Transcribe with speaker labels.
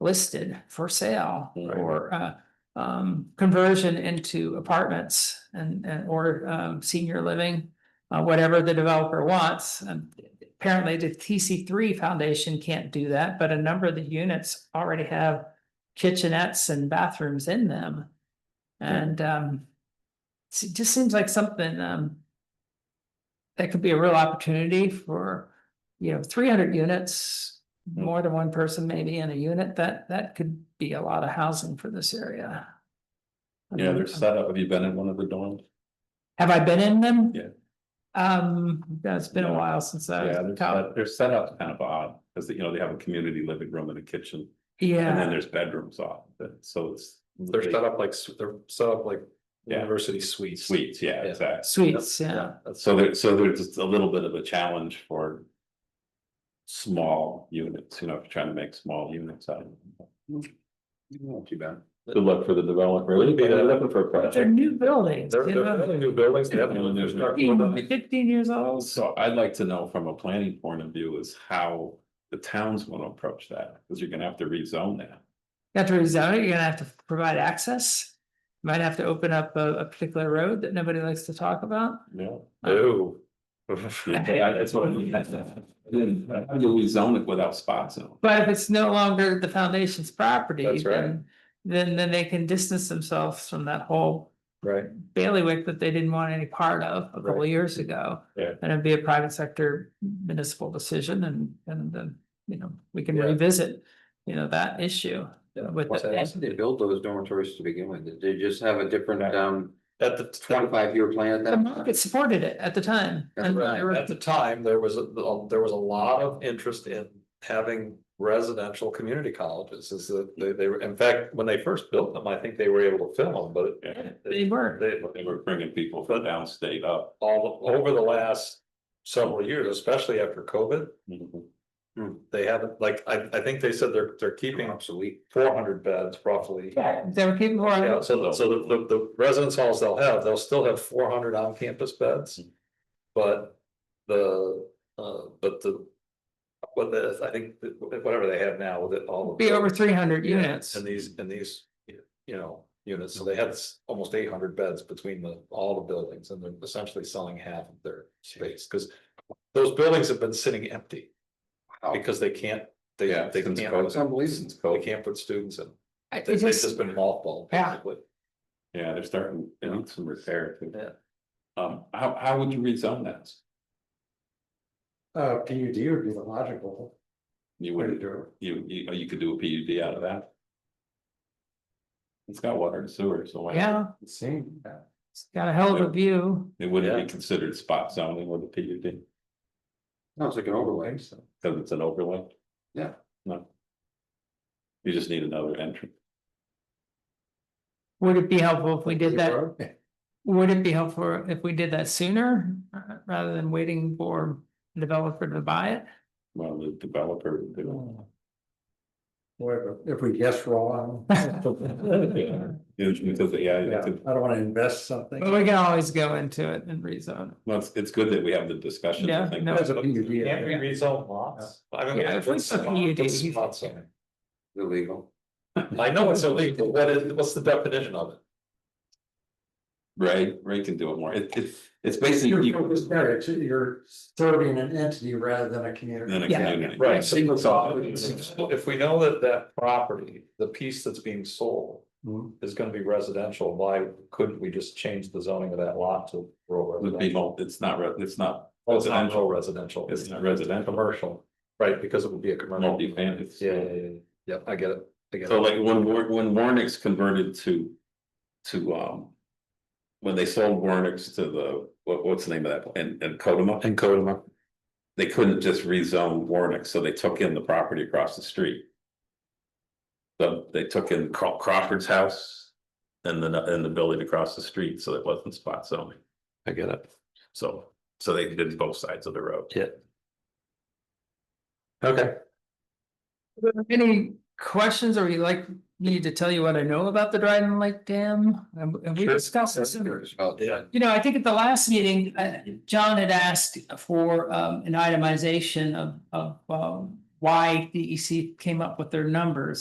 Speaker 1: listed for sale
Speaker 2: Right.
Speaker 1: or uh. Um, conversion into apartments and and or um senior living, uh whatever the developer wants. And apparently the TC three foundation can't do that, but a number of the units already have kitchenettes and bathrooms in them. And um, s- it just seems like something um. That could be a real opportunity for, you know, three hundred units,
Speaker 2: Mm-hmm.
Speaker 1: more than one person maybe in a unit, that that could be a lot of housing for this area.
Speaker 2: Yeah, they're set up. Have you been in one of the dorms?
Speaker 1: Have I been in them?
Speaker 2: Yeah.
Speaker 1: Um, that's been a
Speaker 2: No.
Speaker 1: while since I was
Speaker 2: Yeah,
Speaker 1: in
Speaker 2: they're
Speaker 1: college.
Speaker 2: set, they're set up kind of odd, because you know, they have a community living room and a kitchen, and then
Speaker 1: Yeah,
Speaker 2: there's bedrooms off, but so it's.
Speaker 3: They're set up like, s- they're set up like
Speaker 2: Yeah.
Speaker 3: university suites.
Speaker 2: Suites, yeah,
Speaker 3: Yeah.
Speaker 2: exactly.
Speaker 1: suites, yeah.
Speaker 3: That's,
Speaker 2: So there, so there's just a little bit of a challenge for. Small units, you know, if you're trying to make small units out of. them. Not too bad. Good luck for the developer. Really
Speaker 3: Be the-
Speaker 2: looking for a
Speaker 1: But they're new buildings,
Speaker 3: they're,
Speaker 1: you
Speaker 3: they're
Speaker 1: know,
Speaker 3: building new buildings. they haven't even
Speaker 2: There's-
Speaker 3: constructed them.
Speaker 1: 15 15 years old.
Speaker 2: So I'd like to know from a planning point of view is how the towns want to approach that, because you're gonna have to rezone that.
Speaker 1: You have to rezone it, you're gonna have to provide access. Might have to open up a, a particular road that nobody likes to talk about.
Speaker 2: Yeah.
Speaker 3: No.
Speaker 2: Yeah, that's what I mean. Then how do you rezone it without spot zone?
Speaker 1: But if it's no longer the foundation's property,
Speaker 3: That's right.
Speaker 1: then, then, then they can distance themselves from that whole
Speaker 3: Right,
Speaker 1: bailiwick that they didn't want any part of a couple
Speaker 3: Right.
Speaker 1: years ago.
Speaker 2: Yeah.
Speaker 1: And it'd be a private sector municipal decision and, and then, you know, we can
Speaker 3: Yeah.
Speaker 1: revisit, you know, that issue.
Speaker 3: Yeah.
Speaker 1: With
Speaker 4: Why
Speaker 1: the,
Speaker 4: did they build those dormitories to begin with? Did they just have a different, um,
Speaker 3: at the twenty
Speaker 4: twenty-five year plan at
Speaker 1: the
Speaker 4: that time?
Speaker 1: market supported it at the time.
Speaker 4: That's
Speaker 1: and
Speaker 4: right.
Speaker 1: there were-
Speaker 3: At the time, there was, a there was a lot of interest in having residential community colleges, is that they, they were, in fact, when they first built them, I think they were able to fill them, but.
Speaker 2: Yeah,
Speaker 1: They were.
Speaker 3: They,
Speaker 2: They were bringing people from downstate up.
Speaker 3: all, over the last several years, especially after COVID, they haven't, like, I, I think they said they're, they're keeping
Speaker 4: Obsolete.
Speaker 3: four hundred beds roughly.
Speaker 1: Yeah, they were keeping more.
Speaker 3: Yeah, so, the- so the, the, the residence halls they'll have, they'll still have four hundred on-campus beds.
Speaker 1: Mm-hmm.
Speaker 3: But the, uh, but the. What the, I think, that whatever they have now with it all. of
Speaker 1: Be over three hundred
Speaker 3: Yeah,
Speaker 1: units.
Speaker 3: And these, and these, you know, units, so they had s- almost eight hundred beds between the, all the buildings, and they're essentially selling half of their space, because. Those buildings have been sitting empty, because they can't, they,
Speaker 2: Yeah,
Speaker 3: they
Speaker 2: since
Speaker 3: can't,
Speaker 2: COVID.
Speaker 4: It's unbelievable.
Speaker 3: they can't put students in,
Speaker 1: I-
Speaker 3: they,
Speaker 1: It
Speaker 3: have
Speaker 1: just,
Speaker 3: just been mothballed.
Speaker 1: Yeah.
Speaker 3: basically.
Speaker 2: Yeah, they're starting, they need some repair too.
Speaker 3: Yeah.
Speaker 2: Um, how, how would you rezone that?
Speaker 5: Uh, P U D would be the logical
Speaker 2: You
Speaker 5: way to
Speaker 2: would,
Speaker 5: do it.
Speaker 2: you, you, oh, you could do a PUD out of that. It's got water and sewer, so why?
Speaker 1: yeah,
Speaker 5: It seemed that.
Speaker 1: it's got a hell of a view.
Speaker 2: It wouldn't
Speaker 3: Yeah.
Speaker 2: be considered spot zoning with a PUD,
Speaker 4: Sounds like an overlay, so.
Speaker 2: because it's an overlay.
Speaker 4: Yeah.
Speaker 2: No. You just need another entrance.
Speaker 1: Would it be helpful if we did that?
Speaker 4: Yeah.
Speaker 1: Would it be helpful if we did that sooner uh, rather than waiting for a developer to buy it?
Speaker 2: Well, the developer would do
Speaker 5: Boy, but if we guess wrong.
Speaker 2: it. Yeah. It's Because, yeah,
Speaker 5: Yeah,
Speaker 2: it's
Speaker 5: I
Speaker 2: a-
Speaker 5: don't wanna invest something.
Speaker 1: But we can always go into it and rezone.
Speaker 2: Well, it's, it's good that we have the discussion. I
Speaker 1: Yeah,
Speaker 2: think.
Speaker 1: no.
Speaker 5: That's a PUD.
Speaker 3: Can't we rezone lots? I mean,
Speaker 1: Yeah, if we
Speaker 3: what's
Speaker 1: put
Speaker 3: spot-
Speaker 1: PUD,
Speaker 3: what's
Speaker 1: he's-
Speaker 3: spot zoning?
Speaker 4: Illegal.
Speaker 3: I know it's illegal, what is, what's the definition of it?
Speaker 2: Ray, Ray can do it more. It, it's, it's
Speaker 5: You're,
Speaker 2: basically.
Speaker 5: it's there, it's- you're serving an entity rather than a community.
Speaker 2: Than a
Speaker 1: Yeah.
Speaker 2: community.
Speaker 3: Right.
Speaker 2: Single
Speaker 3: So If we know that that property, the piece that's being sold
Speaker 5: Mhm.
Speaker 3: is gonna be residential, why couldn't we just change the zoning of that lot to rural
Speaker 2: Would be,
Speaker 3: residential?
Speaker 2: mul- it's not, re- it's not,
Speaker 3: Oh, it's not rural residential.
Speaker 2: it's not residential,
Speaker 3: Commercial, right, because it would be a commercial.
Speaker 2: multifamily. It's-
Speaker 3: Yeah, yeah, yeah, yeah, I get it, I get
Speaker 2: So
Speaker 3: it,
Speaker 2: like when, War- when Warnick's converted to, to, um. When they sold Warnick's to the, what, what's the name of that, and, and Kodama,
Speaker 3: and code them up.
Speaker 2: they couldn't just rezone Warnick, so they took in the property across the street. So they took in Craw- Crawford's house and then, and the building across the street, so it wasn't spot zoning.
Speaker 3: I get it.
Speaker 2: So, so they did both sides of the road.
Speaker 3: Okay,
Speaker 1: Any questions or you like me to tell you what I know about the Dryden Lake Dam? And and we
Speaker 3: Sure.
Speaker 1: discussed this. in-
Speaker 4: About
Speaker 3: Yeah.
Speaker 4: that.
Speaker 1: You know, I think at the last meeting, uh, John had asked for, um, an itemization of, of, um, why DEC E came up with their numbers.